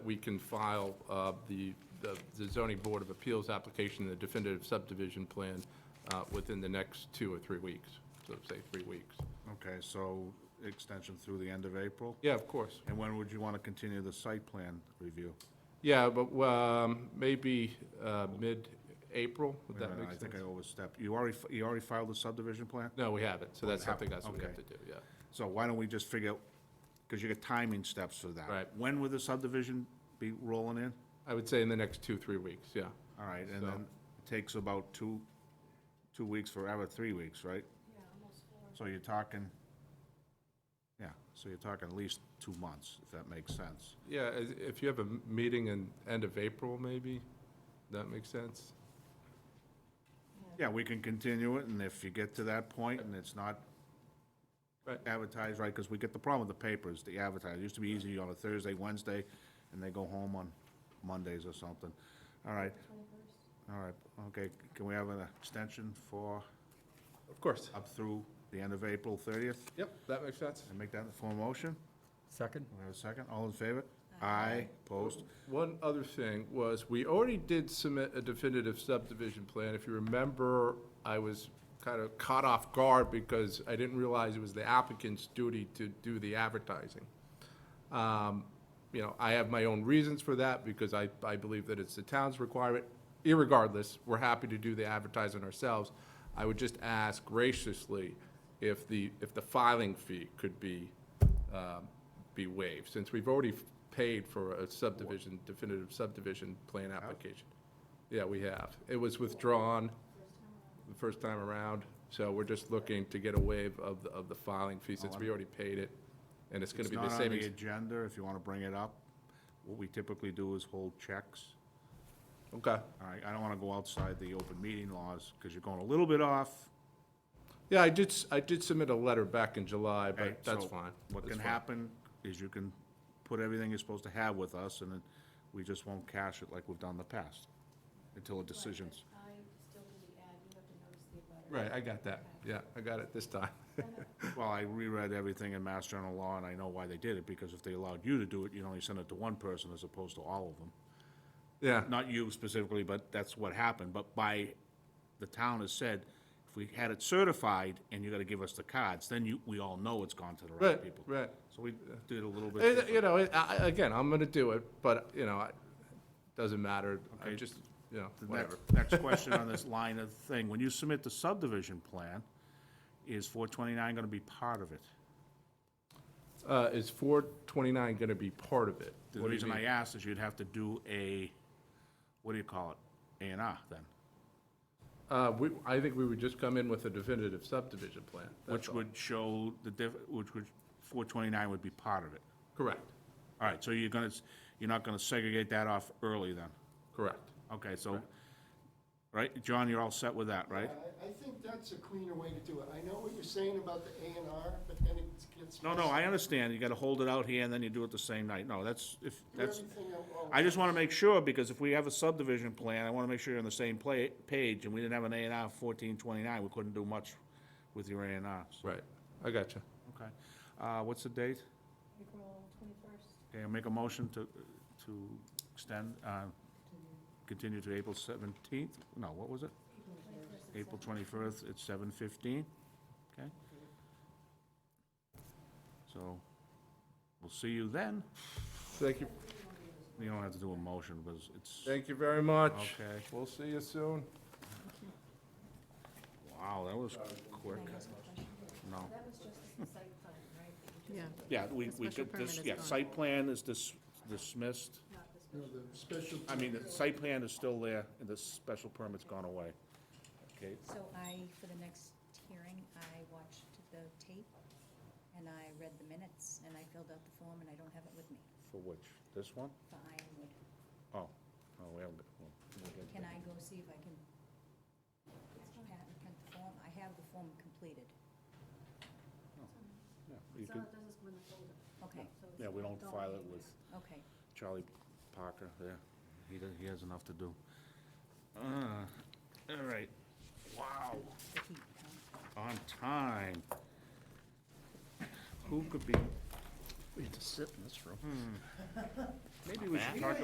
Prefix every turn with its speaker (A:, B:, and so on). A: we can file uh, the the- the zoning board of appeals application, the definitive subdivision plan, uh, within the next two or three weeks, so say three weeks.
B: Okay, so extension through the end of April?
A: Yeah, of course.
B: And when would you want to continue the site plan review?
A: Yeah, but um, maybe uh, mid-April, would
B: Wait a
A: that
B: minute,
A: make
B: uh, I think
A: sense?
B: I overstepped. You already, fi- you already filed the subdivision plan?
A: No, we haven't, so that's something else we have
B: Okay.
A: to do, yeah.
B: So why don't we just figure, because you got timing steps for that.
A: Right.
B: When would the subdivision be rolling in?
A: I would say in the next two, three weeks, yeah.
B: All right, and
A: So-
B: then it takes about two, two weeks forever, three weeks, right? Yeah, almost four. So you're talking, yeah, so you're talking at least two months, if that makes sense.
A: Yeah, i- if you have a m- meeting in end of April, maybe, that makes sense?
B: Yeah, we can continue it, and if you get to that point and it's not
A: Right.
B: advertised, right, because we get the problem with the papers, the advertising. It used to be easy on a Thursday, Wednesday, and they go home on Mondays or something. All right. All right, okay, can we have an extension for,
A: Of course.
B: up through the end of April thirtieth?
A: Yep, that makes sense.
B: And make that the formal motion?
C: Second?
B: We have a second, all in favor? Aye. Opposed?
A: One other thing was, we already did submit a definitive subdivision plan. If you remember, I was kind of caught off guard because I didn't realize it was the applicant's duty to do the advertising. Um, You know, I have my own reasons for that because I, I believe that it's the town's requirement. Irregardless, we're happy to do the advertising ourselves. I would just ask graciously if the, if the filing fee could be, um, be waived, since we've already paid for a subdivision, definitive subdivision plan application. Yeah, we have. It was withdrawn the first time around, so we're just looking to get a waive of, the- of the filing fee since we already paid it. And it's gonna be the
B: Oh, It's not on
A: same.
B: the
A: ex-
B: agenda, if you want to bring it up. What we typically do is hold checks.
A: Okay.
B: All right, I don't want to go outside the open meeting laws, because you're going a little bit off.
A: Yeah, I did, s- I did submit a letter back in July,
B: okay?
A: but that's
B: So
A: fine.
B: What
A: That's
B: can
A: fine.
B: happen is you can put everything you're supposed to have with us, and then we just won't cash it like we've done in the past, until a decision's.
D: I still do the ad, you have to notice the
A: Right,
D: abutter.
A: I got that. Yeah, I got it this time.
B: Well, I reread everything in Mass General Law, and I know why they did it, because if they allowed you to do it, you'd only send it to one person as opposed to all of them.
A: Yeah,
B: not you specifically, but that's what happened, but by, the town has said, if we had it certified and you gotta give us the cards, then you, we all know it's gone to the right
A: right,
B: people.
A: right.
B: So we did a little bit.
A: Eh,
B: different.
A: You know, I- I- again, I'm gonna do it, but, you know, it doesn't matter. I
B: Okay.
A: just, you know,
B: The
A: whatever.
B: next- Next question on this line of thing, when you submit the subdivision plan, is four twenty-nine gonna be part of it?
A: Uh, Is 429 gonna be part of it?
B: The
A: What do you
B: reason I
A: mean?
B: asked is you'd have to do a, what do you call it, A and R then,
A: Uh, we- I think we would just come in with a definitive subdivision plan. That's
B: which
A: all.
B: would show the diff, which would, four twenty-nine would be part of it.
A: Correct,
B: All right, so you're gonna, s- you're not gonna segregate that off early then?
A: correct.
B: Okay, so, right, John, you're all set with that, right?
E: I, I think that's a cleaner way to do it. I know what you're saying about the A and R, but then it gets.
B: No, no, I understand, you gotta hold it out here and then you do it the same night, no, that's, if,
E: Do
B: that's,
E: everything at once.
B: I just wanna make sure, because if we have a subdivision plan, I wanna make sure you're on the same play, page, and we didn't have an A and R fourteen twenty-nine, we couldn't do much with your A and Rs.
A: Right, I got you.
B: Okay, uh, what's the date?
D: April twenty-first.
B: Okay, I'll make a motion to, to extend, uh, continue to April seventeenth, no, what was it? April twenty-first at seven fifteen, okay? So, we'll see you then.
A: Thank you,
B: You don't have to do a motion, because it's,
A: thank you very much.
B: okay.
A: We'll see you soon.
B: Wow, that was quick. No.
D: That was just the site plan, right?
F: Yeah,
B: Yeah, we, we
F: special
B: could, this,
F: permit is
B: yeah,
F: gone.
B: site plan is dis- dismissed.
E: No, the special.
B: I mean, the site plan is still there, and the special permit's gone away. Okay,
G: So I, for the next hearing, I watched the tape, and I read the minutes, and I filled out the form, and I don't have it with me
B: for which? This one?
G: for Ironwood.
B: Oh, oh, we haven't, got- well, we'll get
G: Can
B: that.
G: I go see if I can have and print the form? I have the form completed.
B: Yeah, you
D: It's
B: could-
D: all it does is go in the folder.
G: Okay,
D: So it's
B: Yeah, we don't
D: not
B: file it
D: in
B: with
G: okay.
B: Charlie Parker there. He, does- he has enough to do. Uh, All right. Wow,
G: The heat, huh?
B: on time. Who could be? Hmm.
C: We had to sit in this room.
B: Maybe we should talk